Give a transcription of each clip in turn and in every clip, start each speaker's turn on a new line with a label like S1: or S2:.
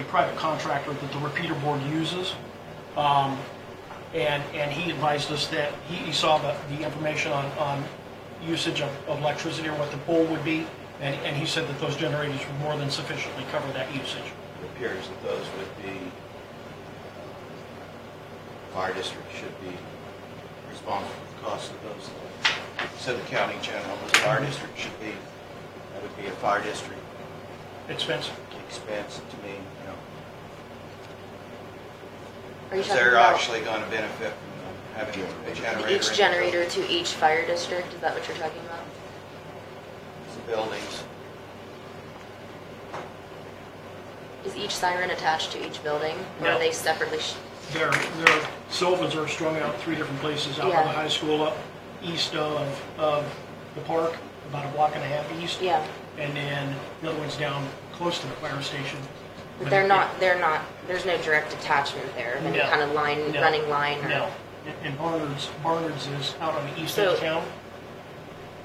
S1: a private contractor that the repeater board uses. Um, And, and he advised us that, he, he saw the, the information on, on usage of of electricity or what the bill would be, and, and he said that those generators would more than sufficiently cover that usage.
S2: It appears that those would be, uh, fire district should be responsible for the cost of those. So the county general, but the fire district should be, that would be a fire district
S1: Expense,
S2: expense to me, you know.
S3: Are you
S2: 'cause
S3: talking
S2: they're
S3: about
S2: actually going to benefit from having a generator. in
S3: each
S2: the
S3: generator to each fire district? Is that what you're talking about?
S2: Buildings.
S3: Is each siren attached to each building? Or
S1: No.
S3: are they separately? Sh-
S1: their, their Silvas are strung out three different places, out by
S3: Yeah.
S1: the high school, up east of, of the park, about a block and a half east.
S3: yeah,
S1: And then the other one's down close to the fire station.
S3: but they're not. They're not. There's no direct attachment there of any
S1: No.
S3: kind of line,
S1: No.
S3: running line. Or,
S1: No, And- and Barnard's, Barnard's is out on the east end of
S3: So-
S1: town,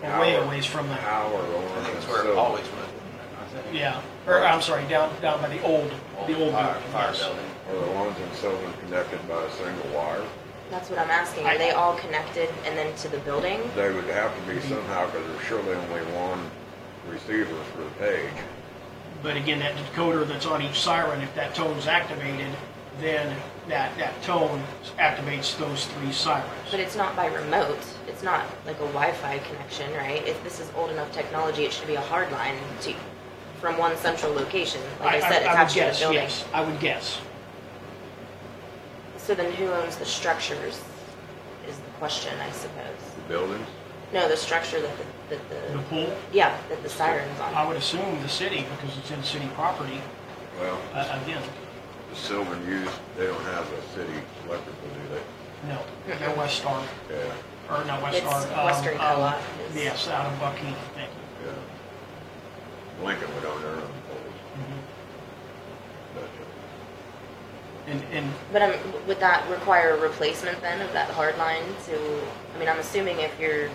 S1: away
S4: Hour.
S1: a ways from that.
S4: Hour
S2: I
S4: or
S2: think it's where it
S4: so.
S2: always was. I think.
S1: Yeah, or I'm sorry, down, down by the old, the old
S2: Fire,
S1: building,
S2: fire
S1: yes.
S2: building.
S4: Are the ones in Sylvan connected by a single wire?
S3: That's what I'm asking. Are
S1: I-
S3: they all connected and then to the building?
S4: They would have to
S1: Mm-hmm.
S4: be somehow, because there's surely only one receiver for the page.
S1: But again, that decoder that's on each siren, if that tone's activated, then that, that tone activates those three sirens.
S3: But it's not by remote. It's not like a Wi-Fi connection, right? If this is old enough technology, it should be a hard line to, from one central location. Like I, said,
S1: would
S3: attached to
S1: guess,
S3: the building.
S1: Yes, I would guess.
S3: So then who owns the structures is the question, I suppose.
S4: The buildings?
S3: No, the structure that the, that
S1: The
S3: the,
S1: pool,
S3: yeah, that the siren's
S1: I
S3: on.
S1: would assume the city, because it's in city property,
S4: Well,
S1: uh, again,
S4: the Sylvan used, they don't have a city electrical, do
S1: no, no
S3: Mm-hmm.
S1: West Star,
S4: they? Yeah,
S1: or not West
S3: It's
S1: Star. um,
S3: Western
S1: um,
S3: Co-op is-
S1: Yes, out of Buckhead, thank you.
S4: yeah. Lincoln would own their own poles.
S1: Mhm. Mm-hmm.
S4: But, uh,
S1: And, and
S3: But um, would that require a replacement then of that hard line to, I mean, I'm assuming if you're,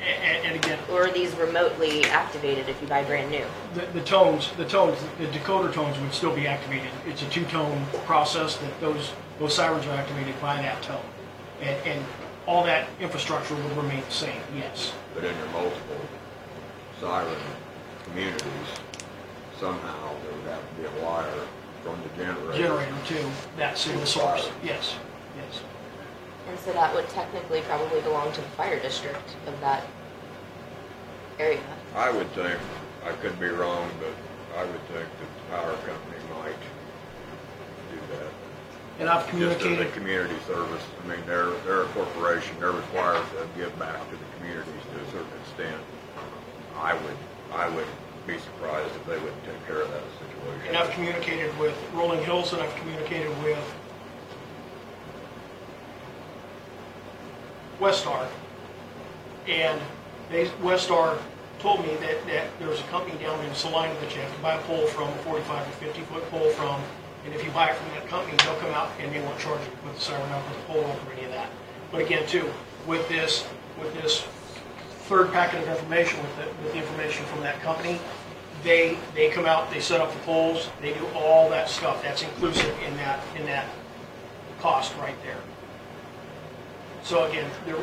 S1: A- a- And again,
S3: or are these remotely activated if you buy brand new?
S1: the the tones, the tones, the decoder tones would still be activated. It's a two-tone process that those, those sirens are activated by that tone. And, and all that infrastructure would remain the same, yes.
S4: but in your multiple siren communities, somehow there would have to be a wire from the generator.
S1: Generator to that single source, yes, yes.
S3: And so that would technically probably belong to the fire district of that area.
S4: I would think, I could be wrong, but I would think that the power company might do that.
S1: And I've
S4: Just as a
S1: communicated,
S4: community service, I mean, they're, they're a corporation, they're required to give back to the communities to a certain extent. I would, I would be surprised if they wouldn't take care of that situation.
S1: and I've communicated with Rolling Hills, and I've communicated with Westar. And they, Westar told me that, that there's a company down in Salina that you have to buy a pole from, a 45 or 50 foot pole from. And if you buy it from that company, they'll come out and they won't charge you with the siren up, with the pole up, or any of that. But again, too, with this, with this third packet of information, with the, with the information from that company, they, they come out, they set up the poles, they do all that stuff. That's inclusive in that, in that cost right there. So again, there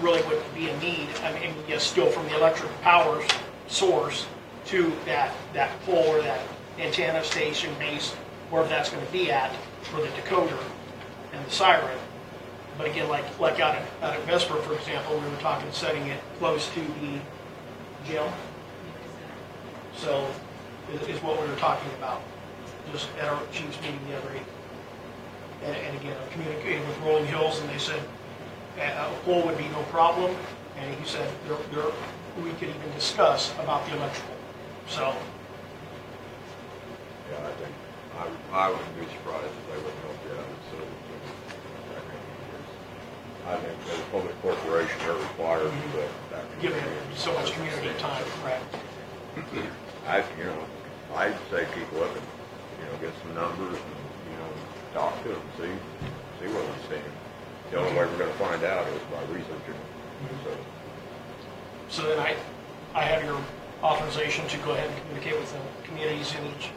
S1: really wouldn't be a need, I mean, yes, still from the electric power source to that, that pole or that antenna station base, wherever that's gonna be at, for the decoder and the siren. But again, like, like out at, out at Vesper, for example, we were talking setting it close to the gym. So, is, is what we were talking about, just at our chief's meeting the other evening. And, and again, I communicated with Rolling Hills, and they said uh, a pole would be no problem, and he said there, there, we could even discuss about the electrical. So,
S4: Yeah, I think, I, would- I wouldn't be surprised if they wouldn't help you out with civil service. I think as a public corporation, they're required to do that.
S1: give it so much community time, correct?
S4: I, you know, I'd say keep looking, you know, get some numbers and, you know, talk to them, see, see where we stand. The only way we're gonna find out is by researching, so.
S1: So then I, I have your, authorization to go ahead and communicate with the communities in each